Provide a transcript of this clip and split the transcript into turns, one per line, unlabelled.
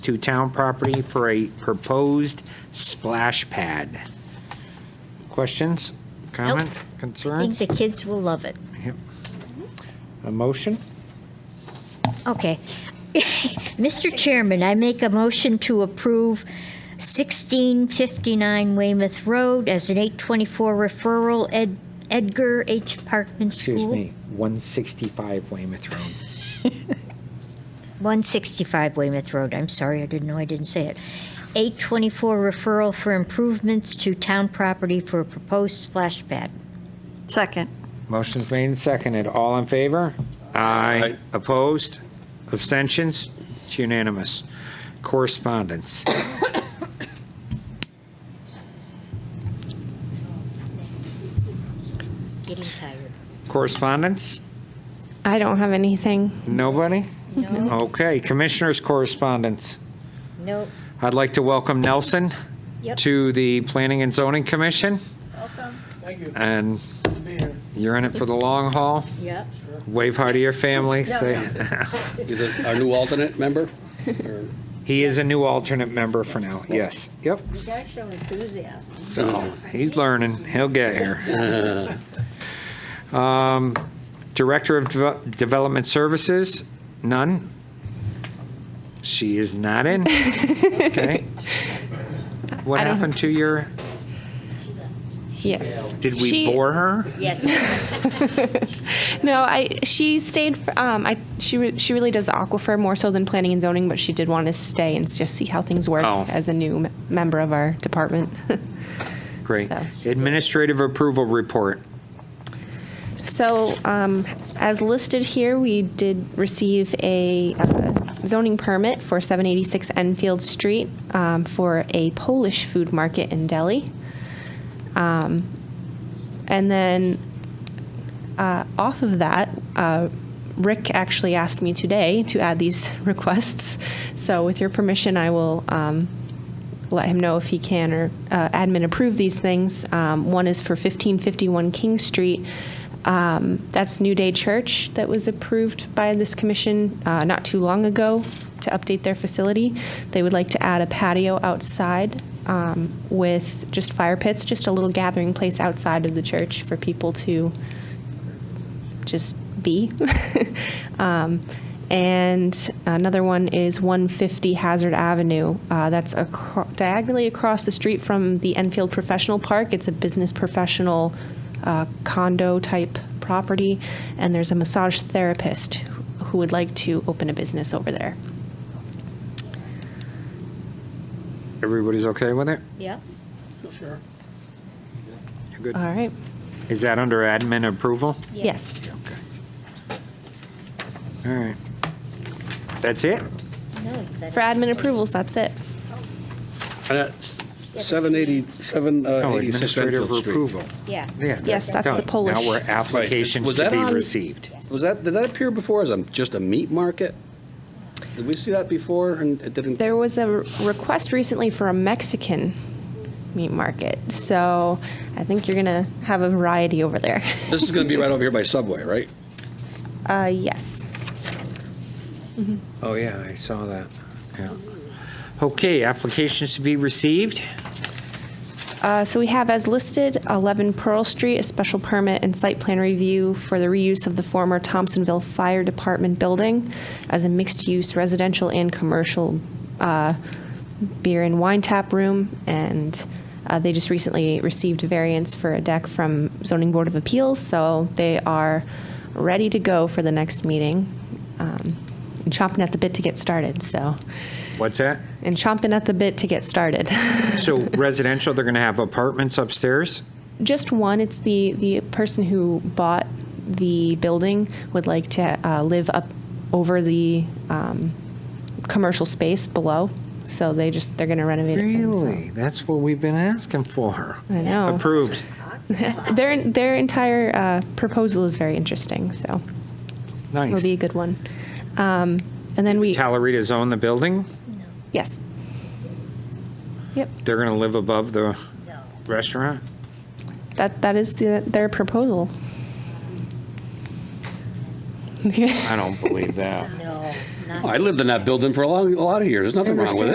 to town property for a proposed splash pad. Questions, comments,
I think
concerns?
the kids will love it.
A motion?
Okay. Mr. Chairman, I make a motion to approve 1659 Weymouth Road as an 824 referral Ed- Edgar H. Parkman School.
Excuse me, 165 Weymouth Road.
165 Weymouth Road, I'm sorry, I didn't know I didn't say it. 824 referral for improvements to town property for a proposed splash pad.
Second.
Motion's made and seconded. All in favor? Aye. Opposed? Abstentions? It's unanimous. Correspondence.
Getting tired.
Correspondence?
I don't have anything.
Nobody? Okay, Commissioners' correspondence.
Nope.
I'd like to welcome Nelson
Yep.
to the Planning and Zoning Commission,
Thank you.
and
Good to be here.
you're in it for the long haul.
Yep.
Wave hi to your family. Say,
He's a- our new alternate member? Or-
he is a new alternate member for now, yes. Yep,
You gotta show enthusiasm.
so he's learning, he'll get here. Um, Director of Deve- Development Services, none. She is not in. Okay. What
I don't-
happened to your,
Yes.
did we
She-
bore her?
Yes.
No, I she stayed. f- Um, I she re, she really does aquifer more so than planning and zoning, but she did want to stay and just see how things work
Oh.
as a new m- member of our department.
Great.
So-
Administrative approval report.
So, um, as listed here, we did receive a uh, zoning permit for 786 Enfield Street um, for a Polish food market and deli. Um, and then uh, off of that, uh, Rick actually asked me today to add these requests. So, with your permission, I will um, let him know if he can or uh, admin approve these things. Um, one is for 1551 King Street. Um, that's New Day Church that was approved by this commission uh, not too long ago to update their facility. They would like to add a patio outside um, with just fire pits, just a little gathering place outside of the church for people to just be. um, and another one is 150 Hazard Avenue. Uh, that's acro- diagonally across the street from the Enfield Professional Park. It's a business professional uh, condo type property, and there's a massage therapist who would like to open a business over there.
Everybody's okay with it?
Yep.
Sure.
You're good.
All right.
Is that under admin approval?
Yes.
All right. That's it?
No, that-
For admin approvals, that's it.
and that's 780, Uh, seven, uh,
No,
86
administrative
Enfield Street.
Oh, approval.
Yeah.
Yeah.
Yes, that's the
done.
Polish.
Now we're applications
Was
to
that
be
on-
received.
Was that, did that appear before as a, just a meat market? Did we see that before and it didn't?
There was a re- request recently for a Mexican meat market, so I think you're gonna have a variety over there.
This is going to be right over here by Subway, right?
Uh, yes.
Oh, yeah, I saw that. Yeah. Okay, applications to be received.
Uh, so we have as listed 11 Pearl Street, a special permit and site plan review for the reuse of the former Thompsonville Fire Department building as a mixed-use residential and commercial uh, beer and wine tap room. And uh, they just recently received variance for a deck from Zoning Board of Appeals, so they are ready to go for the next meeting. Um, and chomping at the bit to get started. So,
What's that?
and chomping at the bit to get started.
So residential, they're going to have apartments upstairs?
Just one. It's the the person who bought the building would like to uh, live up over the um, commercial space below. So they just they're going to renovate it.
Really? That's what we've been asking for.
for themselves. I know.
Approved.
Their their entire uh, proposal is very interesting. So it'll
Nice.
be a good one. Um, and then we
Tallarita's own the building?
yes. Yep.
They're going to live above the restaurant?
That that is the, their proposal.
I don't believe that.
No,
not.
Oh, I lived in that building for a long, a lot of years. There's nothing wrong with it.